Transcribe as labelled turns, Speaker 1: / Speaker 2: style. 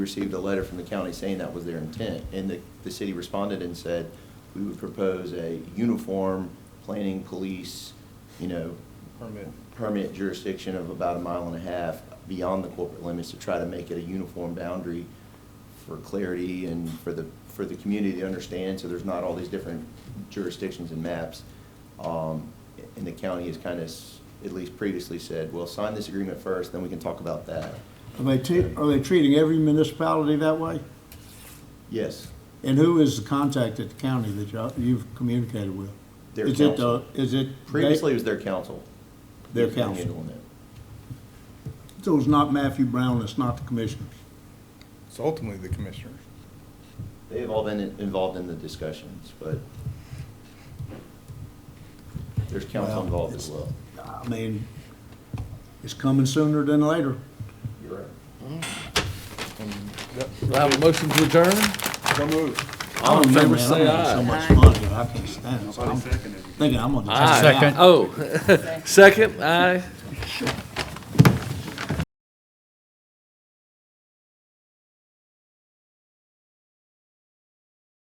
Speaker 1: received a letter from the county saying that was their intent, and the, the city responded and said, we would propose a uniform planning police, you know,
Speaker 2: permit.
Speaker 1: permit jurisdiction of about a mile and a half beyond the corporate limits to try to make it a uniform boundary for clarity and for the, for the community to understand, so there's not all these different jurisdictions and maps. Um, And the county has kind of, at least previously said, well, sign this agreement first, then we can talk about that.
Speaker 3: Are they, te- are they treating every municipality that way?
Speaker 1: Yes,
Speaker 3: And who is the contact at the county that y'all- you've communicated with?
Speaker 1: Their
Speaker 3: Is it
Speaker 1: council.
Speaker 3: the- Is it? they-
Speaker 1: previously it was their council.
Speaker 3: Their
Speaker 1: They're
Speaker 3: council.
Speaker 1: handling it.
Speaker 3: So it's not Matthew Brown, it's not the commissioners?
Speaker 2: It's ultimately the commissioners.
Speaker 1: They have all been in- involved in the discussions, but there's council
Speaker 3: Well,
Speaker 1: involved
Speaker 3: it's-
Speaker 1: as well.
Speaker 3: I mean, it's coming sooner than later.
Speaker 1: You're right.
Speaker 4: Do I have a motion to adjourn?
Speaker 2: So moved.
Speaker 3: I
Speaker 4: in
Speaker 3: don't know,
Speaker 4: favor,
Speaker 3: man, I'm
Speaker 4: say
Speaker 3: having
Speaker 4: aye.
Speaker 3: so much fun, that I can't stand it. So I'm Thinking I'm gonna just.
Speaker 4: Aye. Oh, second, aye.